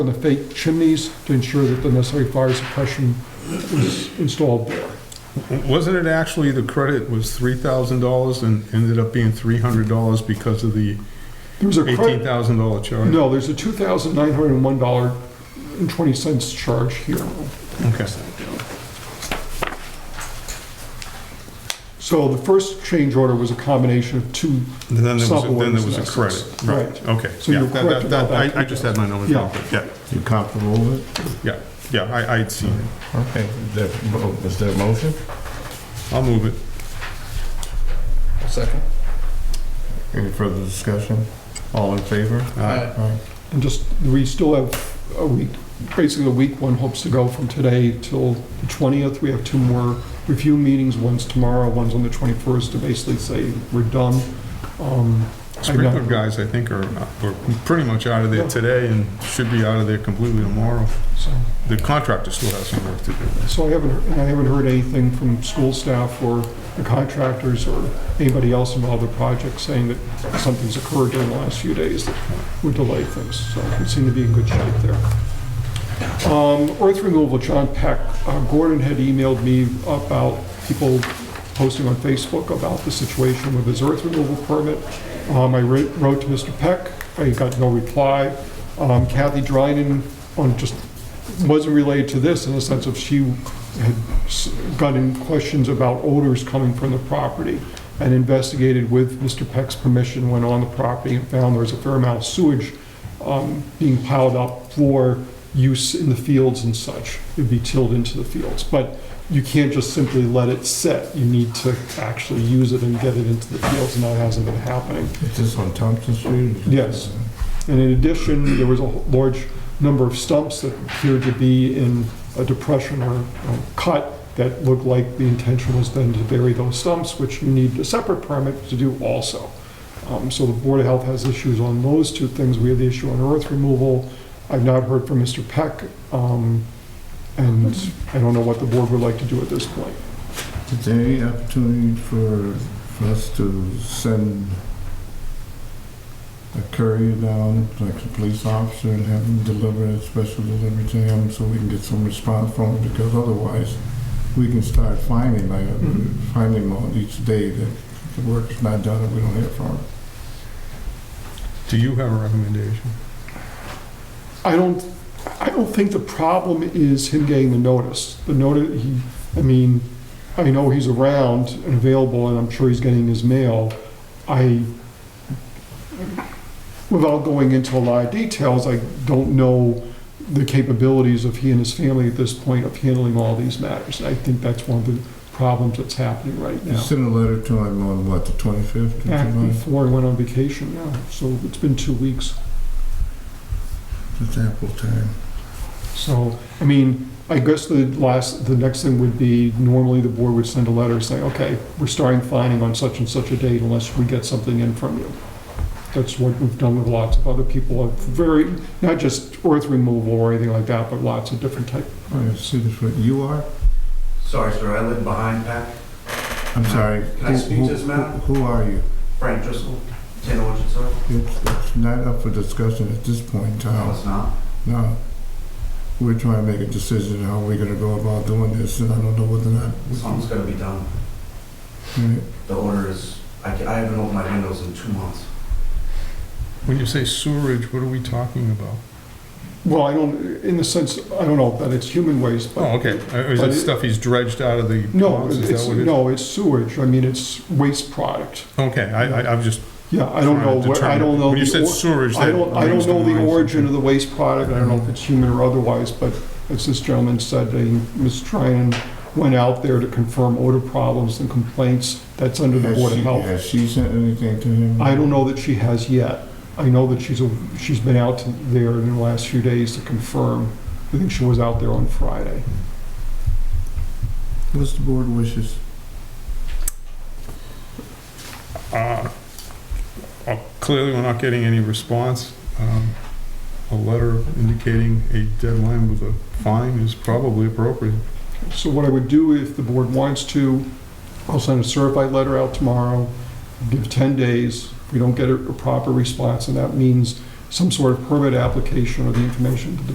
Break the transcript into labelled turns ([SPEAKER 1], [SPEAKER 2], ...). [SPEAKER 1] on the fake chimneys to ensure that the necessary fire suppression was installed there.
[SPEAKER 2] Wasn't it actually, the credit was three thousand dollars and ended up being three hundred dollars because of the
[SPEAKER 1] There was a
[SPEAKER 2] eighteen
[SPEAKER 1] credit,
[SPEAKER 2] thousand dollar charge?
[SPEAKER 1] no, there's a $2,901.20 charge here.
[SPEAKER 2] Okay.
[SPEAKER 1] So the first change order was a combination of two,
[SPEAKER 2] And Then there was,
[SPEAKER 1] Sub
[SPEAKER 2] then there was a
[SPEAKER 1] ordinance,
[SPEAKER 2] credit, right,
[SPEAKER 1] right.
[SPEAKER 2] okay.
[SPEAKER 1] So you're
[SPEAKER 2] Yeah, that-
[SPEAKER 1] correct
[SPEAKER 2] that-
[SPEAKER 1] about that.
[SPEAKER 2] I, I just had my numbers
[SPEAKER 1] Yeah.
[SPEAKER 2] wrong, but yeah,
[SPEAKER 3] You comfortable with it?
[SPEAKER 2] yeah, yeah, I, I'd seen it.
[SPEAKER 3] Okay, is there, is there a motion?
[SPEAKER 2] I'll move it.
[SPEAKER 4] Second.
[SPEAKER 3] Any further discussion? All in favor?
[SPEAKER 2] Aye.
[SPEAKER 3] Aye.
[SPEAKER 1] and just, we still have a week, basically a week, one hopes to go from today till the 20th. We have two more review meetings, one's tomorrow, one's on the 21st, to basically say we're done. Um,
[SPEAKER 2] Sprinkler guys, I think, are, are pretty much out of there
[SPEAKER 1] Yeah.
[SPEAKER 2] today and should be out of there completely tomorrow.
[SPEAKER 1] So
[SPEAKER 2] The contractor still has some work to do.
[SPEAKER 1] so I haven't, and I haven't heard anything from school staff or the contractors or anybody else involved in the project saying that something's occurred during the last few days that would delay things. So we seem to be in good shape there. Um, Earth removal, John Peck, uh, Gordon had emailed me about people posting on Facebook about the situation with his earth removal permit. Um, I writ- wrote to Mr. Peck, I got no reply. Um, Kathy Dryden, on just, wasn't related to this in the sense of she had s- gotten questions about odors coming from the property and investigated with Mr. Peck's permission, went on the property and found there was a fair amount of sewage um, being piled up for use in the fields and such. It'd be tilled into the fields. But you can't just simply let it sit. You need to actually use it and get it into the fields, and that hasn't been happening.
[SPEAKER 3] Is this on Thompson Street?
[SPEAKER 1] Yes. And in addition, there was a large number of stumps that appeared to be in a depression or uh, cut that looked like the intention was then to bury those stumps, which you need a separate permit to do also. Um, So the Board of Health has issues on those two things. We have the issue on earth removal. I've not heard from Mr. Peck, um, and I don't know what the board would like to do at this point.
[SPEAKER 3] Is there any opportunity for, for us to send a courier down, like a police officer, and have him deliver a special delivery to him so we can get some response from him? Because otherwise, we can start finding, like,
[SPEAKER 1] Mhm.
[SPEAKER 3] finding him on each day that the work's not done and we don't hear from him.
[SPEAKER 2] Do you have a recommendation?
[SPEAKER 1] I don't, I don't think the problem is him getting the notice. The notice, he, I mean, I know he's around and available, and I'm sure he's getting his mail. I, without going into a lot of details, I don't know the capabilities of he and his family at this point of handling all these matters. And I think that's one of the problems that's happening right
[SPEAKER 3] You
[SPEAKER 1] now.
[SPEAKER 3] sent a letter to him on, what, the 25th of
[SPEAKER 1] Back
[SPEAKER 3] July?
[SPEAKER 1] before I went on vacation, yeah, so it's been two weeks.
[SPEAKER 3] It's ample time.
[SPEAKER 1] So, I mean, I guess the last, the next thing would be, normally the board would send a letter saying, okay, we're starting fining on such and such a date unless we get something in from you. That's what we've done with lots of other people, of very, not just earth removal or anything like that, but lots of different type.
[SPEAKER 3] Oh, yeah, see this, one. you are?
[SPEAKER 4] Sorry, sir, I live behind Pat.
[SPEAKER 3] I'm sorry.
[SPEAKER 4] Can I
[SPEAKER 3] Who-
[SPEAKER 4] speak
[SPEAKER 3] who-
[SPEAKER 4] to this matter?
[SPEAKER 3] Who who are you?
[SPEAKER 4] Frank Driscoll, 10 Orchard Circle.
[SPEAKER 3] It's it's not up for discussion at this point in
[SPEAKER 4] No,
[SPEAKER 3] time.
[SPEAKER 4] it's not.
[SPEAKER 3] No. We're trying to make a decision how we're gonna go about doing this, and I don't know whether or not. we
[SPEAKER 4] Something's gotta be done.
[SPEAKER 3] can-
[SPEAKER 4] The order is, I ca- I haven't opened my windows in two months.
[SPEAKER 2] When you say sewerage, what are we talking about?
[SPEAKER 1] Well, I don't, in the sense, I don't know that it's human waste,
[SPEAKER 2] Oh,
[SPEAKER 1] but,
[SPEAKER 2] okay. Uh, Is
[SPEAKER 1] but
[SPEAKER 2] it
[SPEAKER 1] it-
[SPEAKER 2] stuff he's dredged out of the
[SPEAKER 1] no,
[SPEAKER 2] ponds? Is that
[SPEAKER 1] it's,
[SPEAKER 2] what it is?
[SPEAKER 1] no, it's sewage, I mean, it's waste product.
[SPEAKER 2] Okay, I, I- I'm just
[SPEAKER 1] Yeah, I
[SPEAKER 2] trying
[SPEAKER 1] don't know,
[SPEAKER 2] to
[SPEAKER 1] what-
[SPEAKER 2] determine.
[SPEAKER 1] I don't know.
[SPEAKER 2] When you
[SPEAKER 1] the
[SPEAKER 2] said
[SPEAKER 1] or-
[SPEAKER 2] sewerage,
[SPEAKER 1] I
[SPEAKER 2] that
[SPEAKER 1] don't, I
[SPEAKER 2] brings
[SPEAKER 1] don't
[SPEAKER 2] to
[SPEAKER 1] know the
[SPEAKER 2] mind
[SPEAKER 1] origin of
[SPEAKER 2] something.
[SPEAKER 1] the waste product, I don't know if it's human or otherwise, but as this gentleman said, they- Ms. Trinan went out there to confirm odor problems and complaints, that's under the
[SPEAKER 3] Has
[SPEAKER 1] Board of
[SPEAKER 3] she-
[SPEAKER 1] Health.
[SPEAKER 3] Has she sent anything to him?
[SPEAKER 1] I don't know that she has yet. I know that she's, a- she's been out to- there in the last few days to confirm. I think she was out there on Friday.
[SPEAKER 3] What's the board wishes?
[SPEAKER 2] Uh, uh, Clearly, we're not getting any response. Um, A letter indicating a deadline with a fine is probably appropriate.
[SPEAKER 1] So what I would do, if the board wants to, I'll send a certified letter out tomorrow, give 10 days. If we don't get a a proper response, and that means some sort of permit application or the information that the